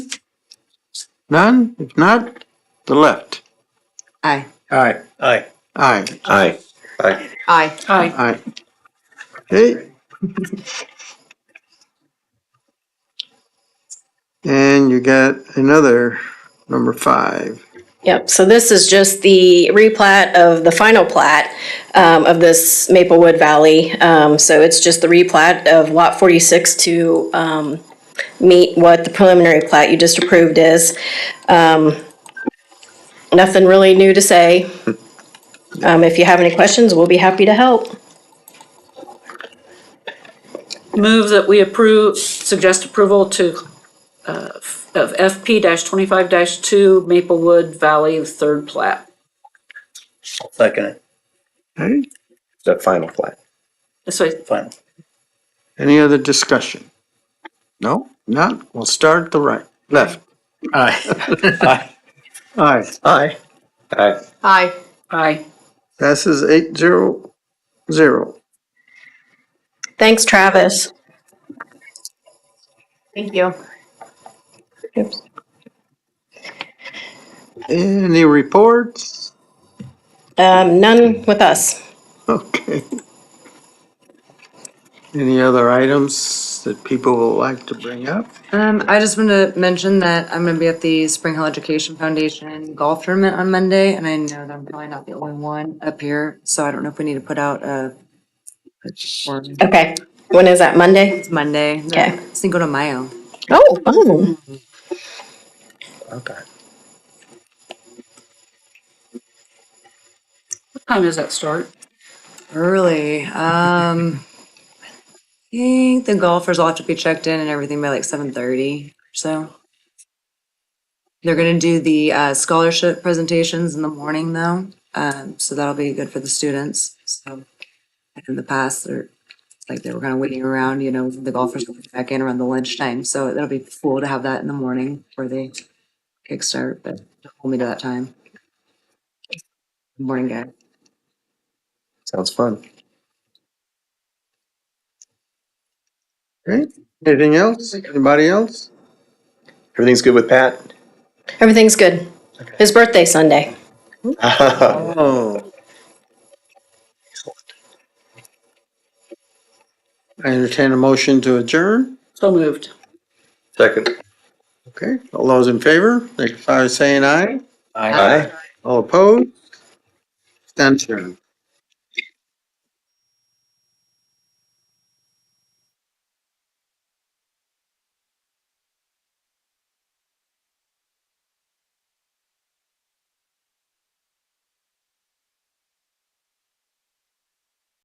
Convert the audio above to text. None? If not, the left. Aye. Aye. Aye. Aye. Aye. Aye. Aye. Aye. Okay. And you got another number five. Yep, so this is just the replat of the final plat um, of this Maplewood Valley. Um, So it's just the replat of Lot 46 to um, meet what the preliminary plat you just approved is. Um, Nothing really new to say. Um, If you have any questions, we'll be happy to help. Move that we approve, suggest approval to, uh, of FP twenty-five two Maplewood Valley Third Plat. I'll Second it. Okay. The final plat. This way, Final. Any other discussion? No? Not? We'll start at the right, left. Aye. Aye. Aye. Aye. Aye. Aye. aye. Passes eight zero zero. Thanks, Travis. Thank you. Any reports? Um, none with us. Okay. Any other items that people would like to bring up? Um, I just want to mention that I'm gonna be at the Spring Hill Education Foundation golf tournament on Monday, and I know that I'm probably not the only one up here, so I don't know if we need to put out a a form. Okay. When is that? Monday? It's Monday. Okay. Cinco de Mayo. Oh, oh. Okay. Time does that start? Early. Um, I think the golfers will have to be checked in and everything by like seven thirty or so. They're gonna do the uh, scholarship presentations in the morning though, um, so that'll be good for the students. So in the past, they're like they were kind of waiting around, you know, the golfers will be back in around the lunchtime. So that'll be cool to have that in the morning before they kickstart, but hold me to that time. Morning, guys. Sounds fun. Okay. Anything else? Anybody else? Everything's good with Pat? Everything's good. His birthday Sunday. Oh. I entertain a motion to adjourn. So moved. Second. Okay, all those in favor, signify by saying aye. Aye. All opposed? Stand adjourned.